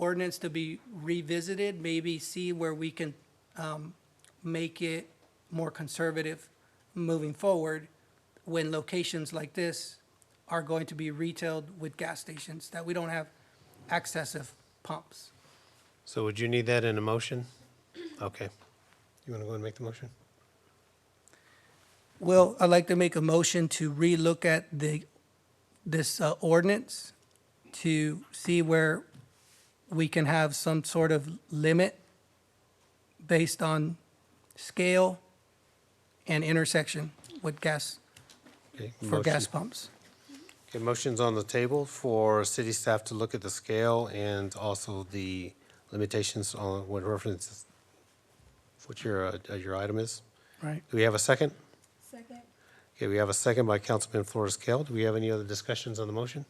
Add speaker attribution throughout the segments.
Speaker 1: ordinance to be revisited, maybe see where we can um, make it more conservative moving forward when locations like this are going to be retailed with gas stations, that we don't have excessive pumps.
Speaker 2: So would you need that in a motion? Okay. You want to go and make the motion?
Speaker 1: Well, I'd like to make a motion to relook at the, this uh, ordinance to see where we can have some sort of limit based on scale and intersection with gas,
Speaker 2: Okay,
Speaker 1: for gas
Speaker 2: motion-
Speaker 1: pumps.
Speaker 2: Okay, motion's on the table for city staff to look at the scale and also the limitations on what references, what your, uh, your item is.
Speaker 1: Right.
Speaker 2: Do we have a second?
Speaker 3: Second.
Speaker 2: Okay, we have a second by Councilman Flores Kell. Do we have any other discussions on the motion?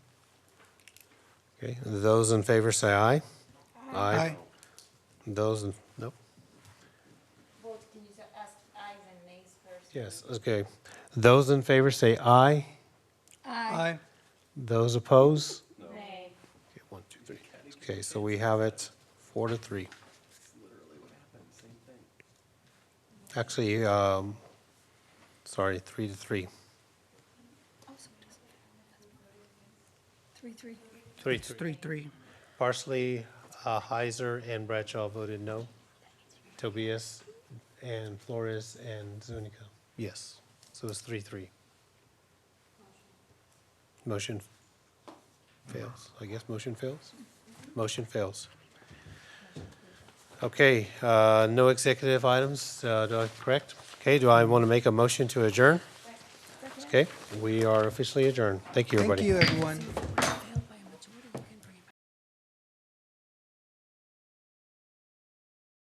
Speaker 2: Okay, those in favor say aye.
Speaker 1: Aye.
Speaker 2: Those, in- nope.
Speaker 3: Vote, can you s- ask ayes and nays first?
Speaker 2: Yes, okay. Those in favor say aye.
Speaker 1: Aye.
Speaker 2: Those opposed?
Speaker 3: Nay.
Speaker 2: Okay, one, two, three. Okay, so we have it four to three. Actually, um, sorry, three to three.
Speaker 3: Three, three.
Speaker 2: Three,
Speaker 1: It's three, three.
Speaker 2: Parsley, uh, Heiser, and Bradshaw voted no. Tobias and Flores and Zuniga, yes. So it's three, three. Motion fails. I guess motion fails? Motion fails. Okay, uh, no executive items, uh, do I, correct? Okay, do I want to make a motion to adjourn? Okay, we are officially adjourned. Thank you, everybody.
Speaker 1: Thank you, everyone.